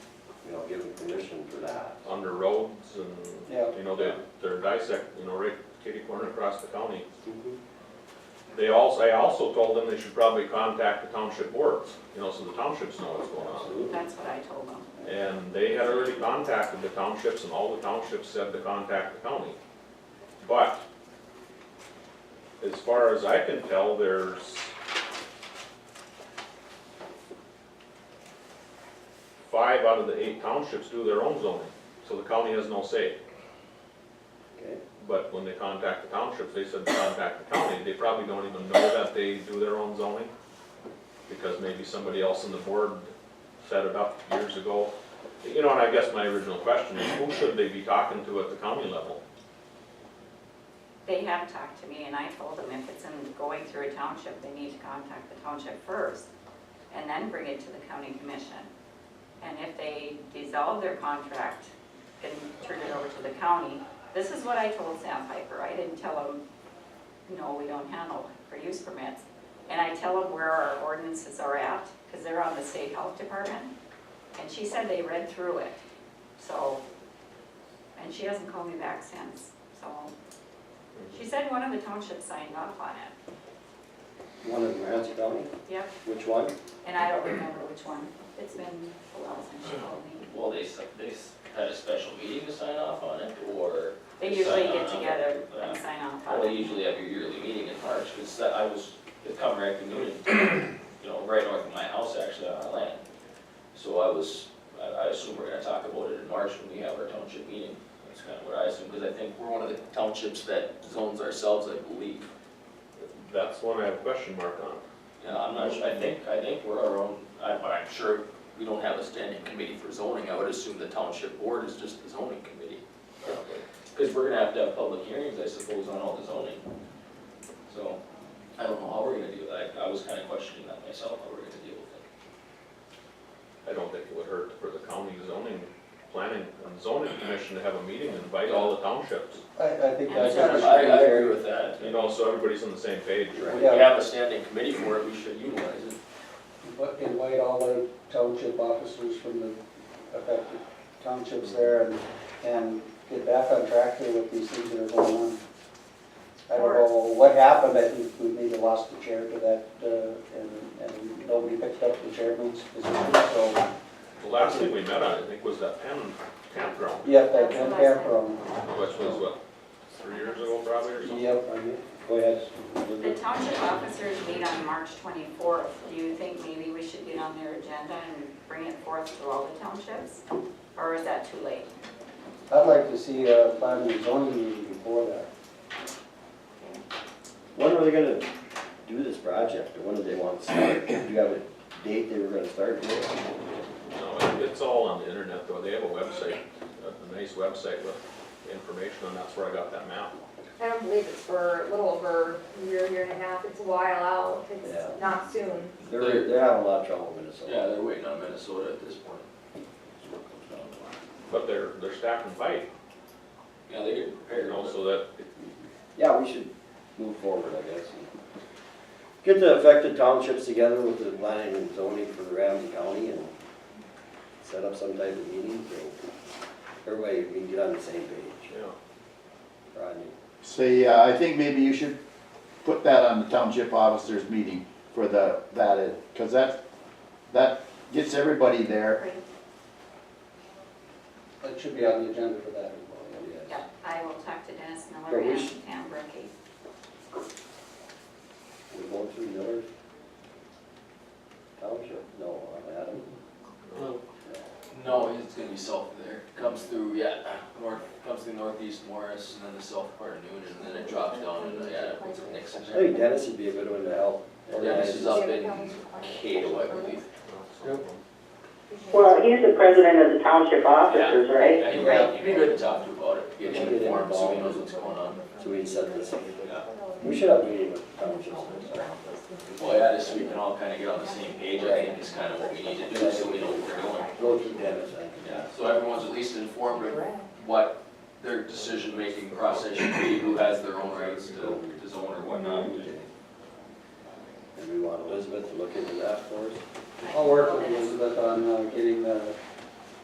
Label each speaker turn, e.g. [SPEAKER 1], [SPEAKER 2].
[SPEAKER 1] give them permission for that.
[SPEAKER 2] under roads and,
[SPEAKER 1] Yeah.
[SPEAKER 2] you know, they, they're dissect, you know, right kitty corner across the county.
[SPEAKER 1] Mm-hmm.
[SPEAKER 2] They also, I also told them they should probably contact the township boards, you know, so the townships know what's going on.
[SPEAKER 1] Absolutely.
[SPEAKER 3] That's what I told them.
[SPEAKER 2] And they had already contacted the townships and all the townships said to contact the county. But as far as I can tell, there's five out of the eight townships do their own zoning, so the county has no say.
[SPEAKER 1] Okay,
[SPEAKER 2] But when they contact the townships, they said contact the county, they probably don't even know that they do their own zoning. Because maybe somebody else on the board set it up years ago. You know, and I guess my original question is, who should they be talking to at the county level?
[SPEAKER 3] They have talked to me and I told them if it's in going through a township, they need to contact the township first and then bring it to the county commission. And if they dissolve their contract and turn it over to the county, this is what I told Sandpiper. I didn't tell them, no, we don't handle for use permits. And I tell them where our ordinances are at, because they're on the state health department. And she said they read through it, so, and she hasn't called me back since, so. She said one of the townships signed off on it.
[SPEAKER 1] one of them, Ramsey County,
[SPEAKER 3] Yep.
[SPEAKER 1] which one?
[SPEAKER 3] And I don't remember which one. It's been a while since she called me.
[SPEAKER 4] Well, they, s- they s- had a special meeting to sign off on it, or?
[SPEAKER 3] They
[SPEAKER 4] sign
[SPEAKER 3] usually
[SPEAKER 4] on
[SPEAKER 3] get
[SPEAKER 4] it?
[SPEAKER 3] together and
[SPEAKER 4] Yeah.
[SPEAKER 3] sign off
[SPEAKER 4] Well,
[SPEAKER 3] on
[SPEAKER 4] they
[SPEAKER 3] it.
[SPEAKER 4] usually have your yearly meeting in March, because I was, the Comrade Community, you know, right north of my house, actually, on our land. So I was, I, I assume we're gonna talk about it in March when we have our township meeting. That's kind of what I assume, because I think we're one of the townships that zones ourselves, I believe.
[SPEAKER 2] That's one I have a question mark on.
[SPEAKER 4] Yeah, I'm not sure, I think, I think we're our own, I'm, I'm sure we don't have a standing committee for zoning, I would assume the township board is just the zoning committee. Cause we're gonna have to have public hearings, I suppose, on all the zoning. So, I don't know how we're gonna deal with that, I was kinda questioning that myself, how we're gonna deal with it.
[SPEAKER 2] I don't think it would hurt for the county zoning, planning and zoning commission to have a meeting and invite all the townships.
[SPEAKER 5] I, I think that's.
[SPEAKER 3] Yeah,
[SPEAKER 4] I, I agree with that,
[SPEAKER 2] You know, so everybody's on the same page,
[SPEAKER 4] When
[SPEAKER 2] right?
[SPEAKER 4] we have a standing committee for it, we should utilize it.
[SPEAKER 5] But Invite all the township officers from the affected townships there and, and get back on track here with these things that are going on. I don't know what happened, I think we maybe lost the chair to that, uh, and, and nobody picked up the chairman's position, so,
[SPEAKER 2] The last thing we met on, I think, was that pen campground,
[SPEAKER 5] yep, that can come from,
[SPEAKER 2] which was what, three years ago probably or something?
[SPEAKER 5] yep, I mean, go ahead.
[SPEAKER 3] The township officers meet on March 24th. Do you think maybe we should get on their agenda and bring it forth to all the townships? Or is that too late?
[SPEAKER 5] I'd like to see a planning and zoning meeting before that.
[SPEAKER 1] When are they gonna do this project, or when do they want to start? Do you have a date they were gonna start with?
[SPEAKER 2] No, it- it's all on the internet though, they have a website, a nice website with information and that's where I got that map.
[SPEAKER 6] I don't believe it's for a little over a year, year and a half, it's a while out,
[SPEAKER 1] Yeah.
[SPEAKER 6] it's not soon.
[SPEAKER 1] They're, they're having a lot of trouble in Minnesota.
[SPEAKER 4] Yeah, they're waiting on Minnesota at this point. That's what it comes down to.
[SPEAKER 2] But they're, they're stacking pipe,
[SPEAKER 4] Yeah, they get
[SPEAKER 2] you
[SPEAKER 4] prepared,
[SPEAKER 2] know,
[SPEAKER 4] also.
[SPEAKER 2] so that,
[SPEAKER 1] Yeah, we should move forward, I guess. and Get the affected townships together with the planning and zoning for Ramsey County and set up some type of meeting so everybody we can get on the same page.
[SPEAKER 2] you know,
[SPEAKER 1] Rodney,
[SPEAKER 7] So, yeah, I think maybe you should put that on the township officers meeting for the, that, because that, that gets everybody there.
[SPEAKER 3] Great.
[SPEAKER 5] That should be on the agenda for that.
[SPEAKER 1] yes.
[SPEAKER 3] Yeah, I will talk to Dennis Miller
[SPEAKER 1] But we
[SPEAKER 3] and
[SPEAKER 1] should-
[SPEAKER 3] Pam Bricky.
[SPEAKER 1] We're going through Miller Township? No, Adam?
[SPEAKER 4] No, it's gonna be south of there. Comes through, yeah, north, comes through northeast Morris and then the south part of Noonan and then it drops down and, uh, yeah, it's Nixon.
[SPEAKER 1] I think Dennis would be a good one to help.
[SPEAKER 4] Oh, Yeah, this is
[SPEAKER 1] organize.
[SPEAKER 4] up in Cato, I believe.
[SPEAKER 2] you know, so.
[SPEAKER 8] Well, he's the president of the township officers, right?
[SPEAKER 4] Yeah, you'd be- You'd be good to talk to about it, get him informed so he knows what's going on.
[SPEAKER 1] So we can set this up.
[SPEAKER 4] Yeah.
[SPEAKER 1] We should have a meeting with townships.
[SPEAKER 4] Well, yeah, just so we can all kinda get on the same page, I think is kinda what we need to do, so we know what we're doing.
[SPEAKER 1] Go through Dennis, I think.
[SPEAKER 4] Yeah, so everyone's at least informed of what their decision-making process should be, who has their own rights to, to zone or whatnot.
[SPEAKER 1] And we want Elizabeth to look into that for us.
[SPEAKER 5] I'll work with Elizabeth on uh, getting the